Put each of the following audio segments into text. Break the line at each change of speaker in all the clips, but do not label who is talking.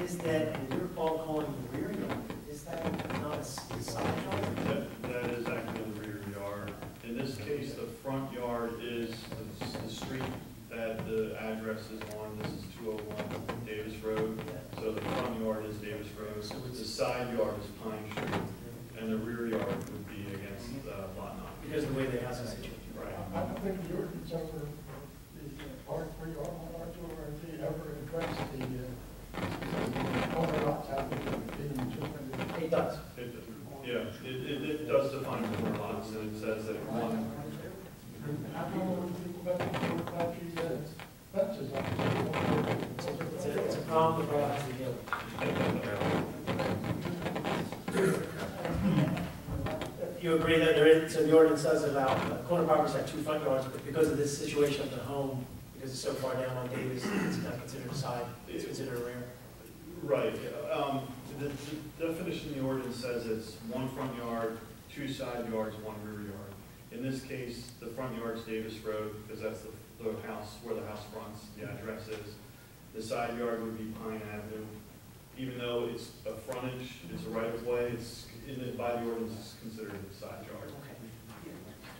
is that you're all calling the rear yard, is that not a s- side yard?
That, that is actually the rear yard. In this case, the front yard is the, the street that the address is on. This is two oh one Davis Road. So the front yard is Davis Road.
So
The
it's,
side yard is Pine Street, and the rear yard would be against uh, lot nine.
because of the way the house is situated.
Right.
I don't think your concern, the R three, R one, R two, R three ever addressed the, uh, corner lots having been two hundred.
It does.
It- Yeah, it, it, it does define corner lots, and it says that one,
I don't know what people about the four, five, three, that's, that's just.
It's a, it's a problem for us to deal with. You agree that there is, so the ordinance does allow, uh, corner properties have two front yards, but because of this situation of the home, because it's so far down on Davis, it's not considered a side, it's considered a rear.
Right, um, the the definition in the ordinance says it's one front yard, two side yards, one rear yard. In this case, the front yard's Davis Road, because that's the, the house, where the house fronts, the address is. The side yard would be Pine Avenue, even though it's a frontage, it's a right of way, it's, in the, by the ordinance, it's considered a side yard.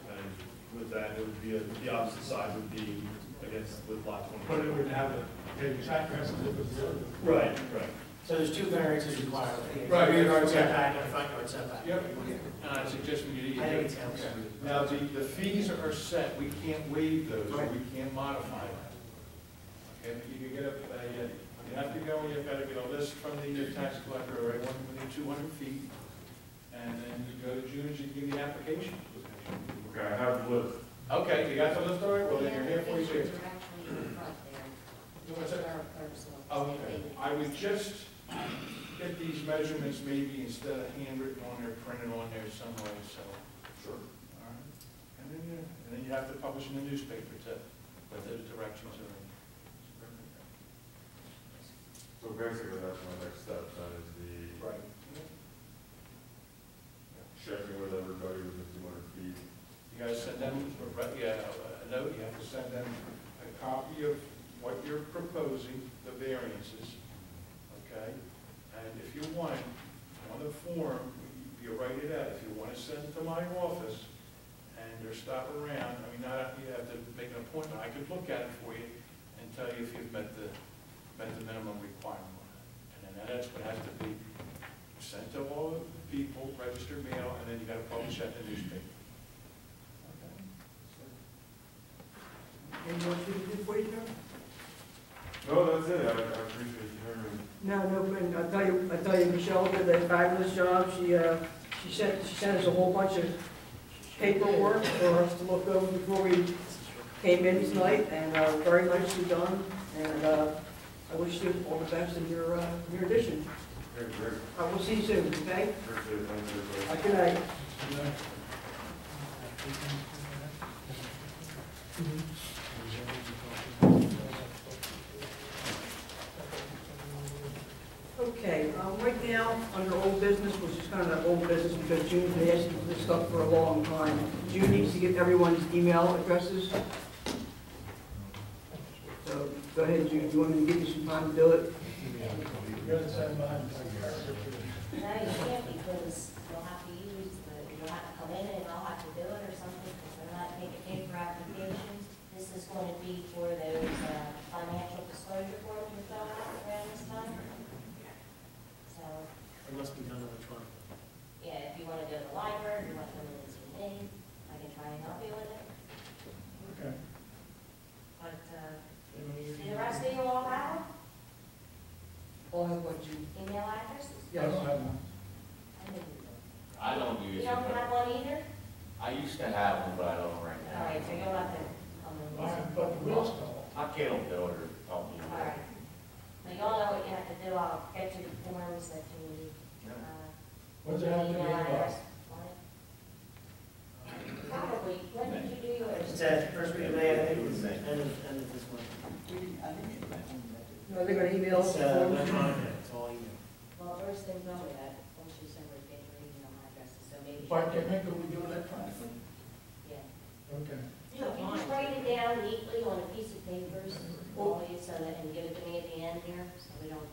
And with that, it would be, a- the opposite side would be against, with lot
But
twenty.
it would have a, a address that would be.
Right, right.
So there's two variances required, the
Right.
rear yard setback and a front yard setback.
Yep. And I suggest we get.
I think it's helps.
Now, the, the fees are set, we can't waive those, we can't modify them. Okay, but you can get a, a, uh, you have to go, and you've got to get a list from the uh, tax collector, or one within two hundred feet, and then you go to June, you give the application.
Okay, I have the list.
Okay, you got the list already, well, then you're here for your.
Pictures are actually in front there.
You want to say-
Our clerk's office.
Okay, I would just get these measurements maybe instead of handwritten on there, printed on there some way, so.
Sure.
All right. And then you, and then you have to publish in the newspaper to, what those directions are in.
So basically, that's my next step, that is the
Right.
checking with everybody within two hundred feet.
You gotta send them, a re- yeah, a note, you have to send them a copy of what you're proposing, the variances, okay? And if you want, on the form, you write it out, if you wanna send it to my office, and or stop around, I mean, not, you have to make an appointment, I could look at it for you and tell you if you've met the, met the minimum requirement. And then that's what has to be sent to all the people, registered mail, and then you gotta publish that in the newspaper.
Any more to do for you, Joe?
No, that's it, I, I appreciate you hearing me.
No, no, but I'll tell you, I'll tell you, Michelle did a fabulous job. She, uh, she sent, she sent us a whole bunch of paperwork for us to look over before we came in tonight, and, uh, very nicely done. And, uh, I wish you all the best in your, uh, your addition.
Great, great,
I will see you soon,
appreciate
okay?
it, thank you, everybody.
Have a good night. Okay, um, right now, under old business, which is kind of old business because June's been asking for this stuff for a long time. June needs to get everyone's email addresses. So go ahead, June, you want me to give you some time to do it?
You're the same behind the car.
No, you can't because you'll have to use the, you'll have to come in and I'll have to do it or something because they're not making paper applications. This is going to be for those uh, financial disclosure forms we fill out around this time. So,
It must be done electronically.
yeah, if you want to go to the library, if you want to come in and see me, I can try and help you with it.
Okay.
But, uh, do the rest of you all have
All I want you.
email addresses?
I don't have one.
I think you do.
I don't do
You
it.
don't have one either?
I used to have one, but I don't right
All
now.
right, so you'll have to come in.
All right, But the wheels go.
I can't do it or help you.
All right. Now, y'all know what you have to do, I'll get you the forms that you need.
Yeah.
uh,
What's it have to be
email
about?
address on it. Probably, when did you do yours?
It's at first week of May, I think, it was end of, end of this month.
No, they're gonna email us.
It's, uh, electronic, it's all email.
Well, first thing, tell me that, once you send her a paper email address, so maybe.
Why can't make it, we do electronically?
Yeah.
Okay.
You can just write
Mm-hmm.
it down neatly on a piece of paper, so all you send it, and give it to me at the end here, so we don't